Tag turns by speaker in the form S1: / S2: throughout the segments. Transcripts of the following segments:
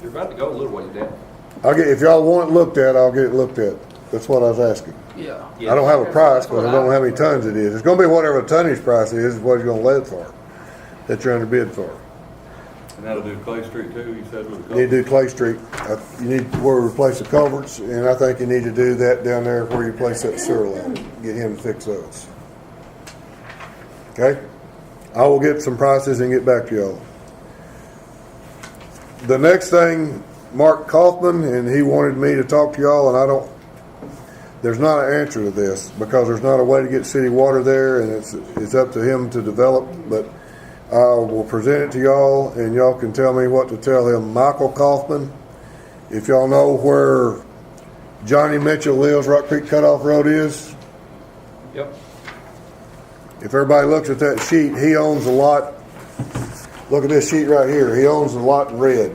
S1: You're about to go a little ways down.
S2: I'll get, if y'all want it looked at, I'll get it looked at. That's what I was asking.
S3: Yeah.
S2: I don't have a price, but I don't know how many tons it is. It's gonna be whatever the tonnage price is, is what you're gonna let it for, that you're under bid for.
S4: And that'll do Clay Street too, you said with a
S2: You need to
S4: couple.
S2: do Clay Street. Uh, You need, where we replace the culverts, and I think you need to do that down there where you place that sewer line. Get him to fix those. Okay? I will get some prices and get back to y'all. The next thing, Mark Kaufman, and he wanted me to talk to y'all, and I don't, there's not an answer to this, because there's not a way to get city water there, and it's, it's up to him to develop, but I will present it to y'all, and y'all can tell me what to tell him. Michael Kaufman, if y'all know where Johnny Mitchell lives, Rock Creek Cutoff Road is,
S1: Yep.
S2: if everybody looks at that sheet, he owns a lot. Look at this sheet right here. He owns a lot in red.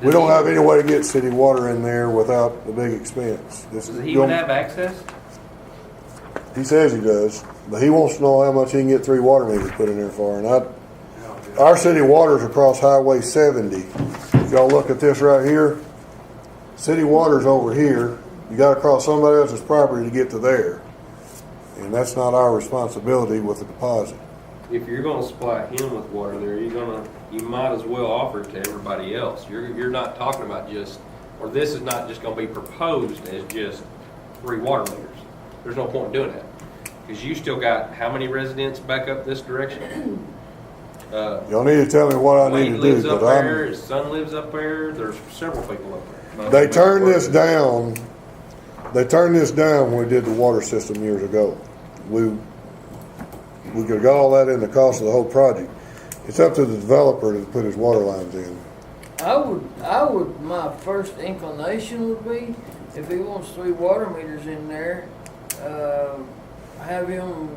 S2: We don't have any way to get city water in there without the big expense. This
S1: Does
S2: is-
S1: he even have access?
S2: He says he does, but he wants to know how much he can get three water meters put in there for, and I, our city water's across Highway seventy. If y'all look at this right here, city water's over here, you gotta cross somebody else's property to get to there. And that's not our responsibility with the deposit.
S1: If you're gonna supply him with water there, you're gonna, you might as well offer it to everybody else. You're, you're not talking about just, or this is not just gonna be proposed as just three water meters. There's no point in doing that. Cause you still got how many residents back up this direction? Uh,
S2: Y'all need to tell me what I need
S1: Wade
S2: to
S1: lives
S2: do,
S1: up
S2: but
S1: there,
S2: I'm,
S1: his son lives up there, there's several people up there.
S2: they turned this down, they turned this down when we did the water system years ago. We, we could have got all that in the cost of the whole project. It's up to the developer to put his water lines in.
S3: I would, I would, my first inclination would be, if he wants three water meters in there, uh, have him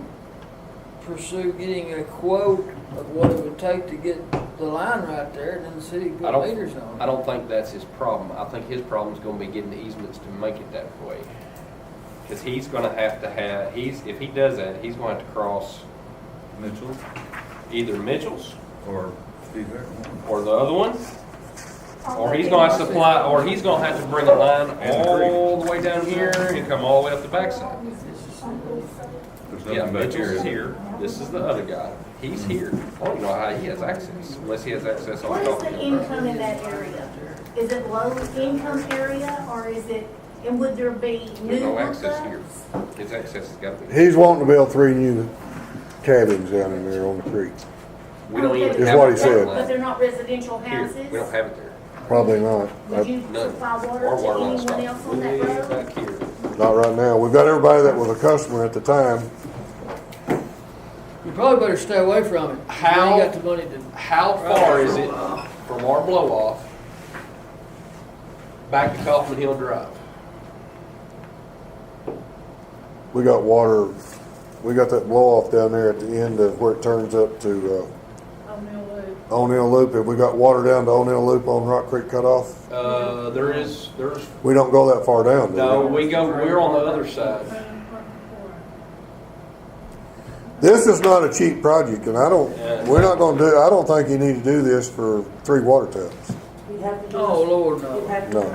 S3: pursue getting a quote of what it would take to get the line right there, and then the city
S1: I
S3: put
S1: don't-
S3: meters on.
S1: I don't think that's his problem. I think his problem's gonna be getting the easements to make it that way. Cause he's gonna have to have, he's, if he does that, he's going to cross
S4: Mitchell
S1: either Mitchell's
S4: or Steve Bear.
S1: or the other one, or he's gonna have to supply, or he's gonna have to bring a line
S4: And the creek.
S1: all the way down here and come all the way up the backside.
S4: There's
S1: Yeah,
S4: nothing back
S1: Mitchell's
S4: here.
S1: is here, this is the other guy, he's here. I don't know how he has access, unless he has access on
S5: What is
S1: top
S5: the
S1: of
S5: income in that area? Is it low income area or is it, and would there be new
S1: There's no access here.
S5: hookups?
S1: His access has gotta be,
S2: He's wanting to build three new cabins down in there on the creek.
S1: we don't even have.
S5: Oh, Okay,
S2: Is what he
S1: a
S2: said.
S1: water line.
S5: But they're not residential
S1: Here,
S5: houses?
S1: we don't have it there.
S2: Probably not.
S5: Would you
S1: None.
S5: supply
S1: Our water
S5: water
S1: line's
S5: to anyone
S1: stopped
S5: else on
S1: way
S5: that road?
S1: back here.
S2: Not right now. We've got everybody that was a customer at the time.
S3: You probably better stay away from it.
S1: How-
S3: You ain't got the money to.
S1: How far is it from our blow off back to Kaufman Hill Drive?
S2: We got water, we got that blow off down there at the end of where it turns up to,
S5: Oh, no, Lou.
S2: uh, O'Neill Loop. If we got water down to O'Neill Loop on Rock Creek Cutoff,
S1: Uh, there is, there's,
S2: we don't go that far down, do we?
S1: no, we go, we're on the other side.
S2: This is not a cheap project, and I don't,
S1: Yeah.
S2: we're not gonna do, I don't think you need to do this for three water taps.
S6: You'd have to do.
S3: Oh,
S6: a-
S3: Lord,
S6: You'd
S3: no.
S6: have to do
S2: No.
S6: a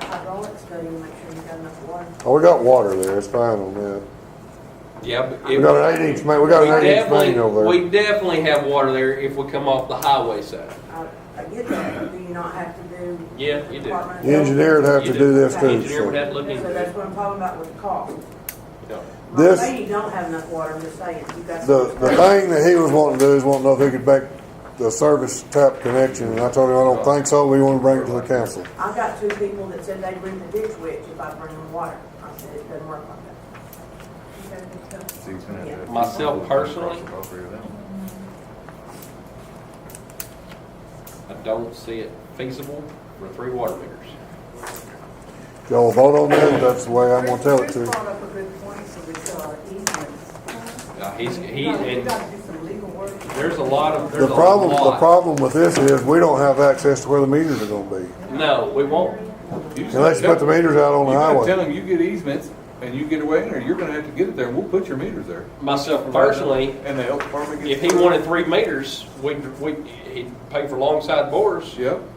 S6: a hydraulic study, and make sure you got enough water.
S2: Oh, we got water there. It's fine on that.
S1: Yeah, but.
S2: We
S1: it-
S2: got an eight inch main, we got
S1: we
S2: an eight inch
S1: definitely-
S2: main over there.
S1: We definitely have water there if we come off the highway side.
S6: I, I get that, but do you not have to do?
S1: Yeah, you do.
S6: Department of
S2: The engineer would have to
S1: You
S2: do this
S1: The
S2: too,
S1: Engineer would
S2: so.
S1: have to look
S6: Health. So
S1: into it.
S6: that's what I'm talking about with the cost.
S1: No.
S6: I'm not
S2: This-
S6: saying you don't have enough water, I'm just saying, you got.
S2: The, the thing that he was wanting to do is wanting to know if he could make the service tap connection, and I told him, I don't think so, we wanna bring it to the council.
S6: I've got two people that said they'd bring the ditch witch if I bring them water. I said, it doesn't work like that.
S4: Steve's gonna have to-
S1: Myself personally?
S4: All three of them.
S1: I don't see it feasible for three water meters.
S2: Y'all vote on that, that's the way I'm gonna tell it to.
S7: Chris
S2: you.
S7: brought up a good point, so we saw easements.
S1: Uh, he's, he,
S7: You gotta- you
S1: and
S7: gotta do some legal work.
S1: there's a lot of, there's
S2: The
S1: a
S2: problem, the
S1: lot.
S2: problem with this is, we don't have access to where the meters are gonna be,
S1: No, we won't.
S2: unless you put the meters out on the
S4: You gotta
S2: highway.
S4: Tell him you get easements, and you get away in there, you're gonna have to get it there, we'll put your meters there.
S1: Myself personally,
S4: And the health department gets.
S1: if he wanted three meters, we'd, we'd, he'd pay for long side bores.
S4: Yep.